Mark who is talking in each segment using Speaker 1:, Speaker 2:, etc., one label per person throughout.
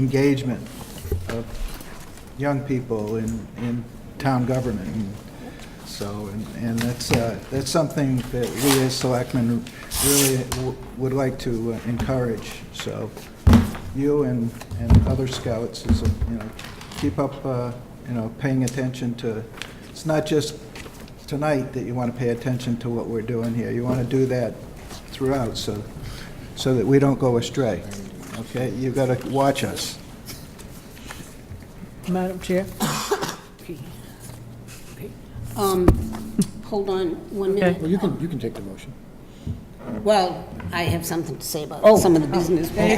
Speaker 1: engagement of young people in, in town government. And So, and- and that's, uh, that's something that we as selectmen really w- would like to uh, encourage. So you and, and other scouts is, uh, you know, keep up, uh, you know, paying attention to, it's not just tonight that you want to pay attention to what we're doing here. You want to do that throughout, so, so that we don't go astray, okay? You've got to watch us.
Speaker 2: Madam Chair?
Speaker 3: Um, hold on one minute.
Speaker 4: Well, you can, you can take the motion.
Speaker 3: Well, I have something to say about
Speaker 4: Oh.
Speaker 3: some of the business. Tell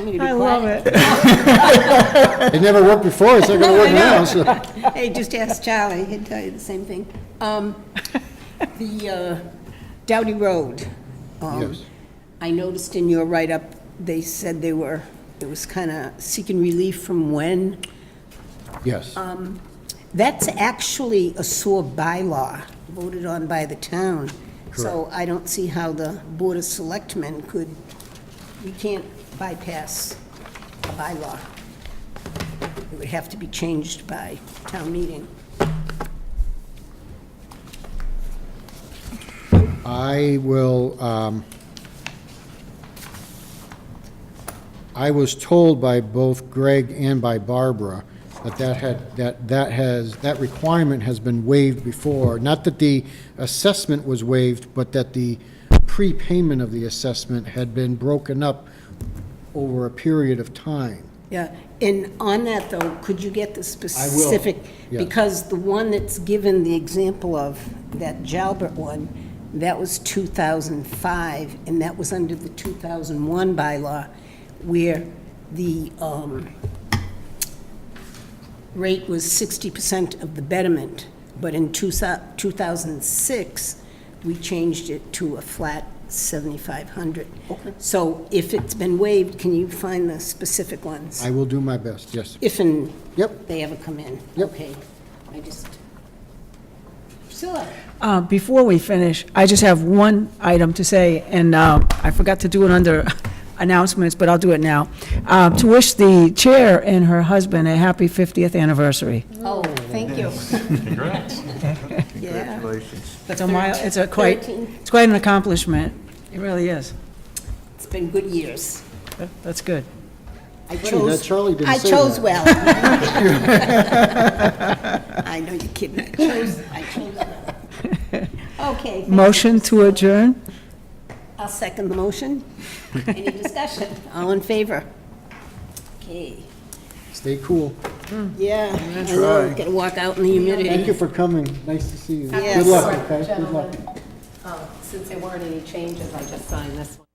Speaker 3: me to be quiet.
Speaker 2: it.
Speaker 4: It never worked before, it's not gonna
Speaker 3: No, I
Speaker 4: work now,
Speaker 3: know.
Speaker 4: so.
Speaker 3: Hey, just ask Charlie, he'd tell you the same thing. Um, The uh, Dowdy Road. um,
Speaker 4: Yes.
Speaker 3: I noticed in your write-up, they said they were, it was kind of seeking relief from when.
Speaker 4: Yes,
Speaker 3: That's actually a SOAR bylaw voted on by the town. So I don't see how the Board of Selectmen could, we can't bypass a bylaw. It would have to be changed by town meeting.
Speaker 4: I will, um, I was told by both Greg and by Barbara that that had, that, that has, that requirement has been waived before. Not that the assessment was waived, but that the prepayment of the assessment had been broken up over a period of time.
Speaker 3: Yeah, and on that though, could you get the specific?
Speaker 4: yes.
Speaker 3: Because the one that's given the example of, that Jalbert one, that was 2005, and that was under the 2001 bylaw, where the um, rate was 60% of the betterment, but in two thou- 2006, we changed it to a flat 7,500. Okay. So if it's been waived, can you find the specific ones?
Speaker 4: I will do my best, yes.
Speaker 3: If and
Speaker 4: Yep.
Speaker 3: they ever come in?
Speaker 4: Yep.
Speaker 3: Okay, I just, Priscilla,
Speaker 2: Uh, Before we finish, I just have one item to say, and uh, I forgot to do it under announcements, but I'll do it now. Uh, To wish the chair and her husband a happy 50th anniversary.
Speaker 3: oh, thank you. Yeah.
Speaker 1: Congratulations.
Speaker 2: It's a mile, it's a quite,
Speaker 3: Thirteen.
Speaker 2: it's quite an accomplishment. It really is.
Speaker 3: It's been good years.
Speaker 2: That- That's good.
Speaker 3: I
Speaker 4: that
Speaker 3: chose.
Speaker 4: Charlie didn't say
Speaker 3: I chose well.
Speaker 4: that.
Speaker 3: I know you're kidding, I chose, I chose well. Okay. thank you,
Speaker 2: Motion to
Speaker 3: Priscilla.
Speaker 2: adjourn?
Speaker 3: I'll second the motion. Any discussion? All in favor? Okay,
Speaker 4: Stay cool.
Speaker 3: yeah, I know, gotta walk out in the
Speaker 4: Thank
Speaker 3: humidity.
Speaker 4: you for coming. Nice to see you.
Speaker 3: Yes.
Speaker 4: Good luck, okay? Good luck.
Speaker 5: Gentlemen, uh, since there weren't any changes, I just signed this one.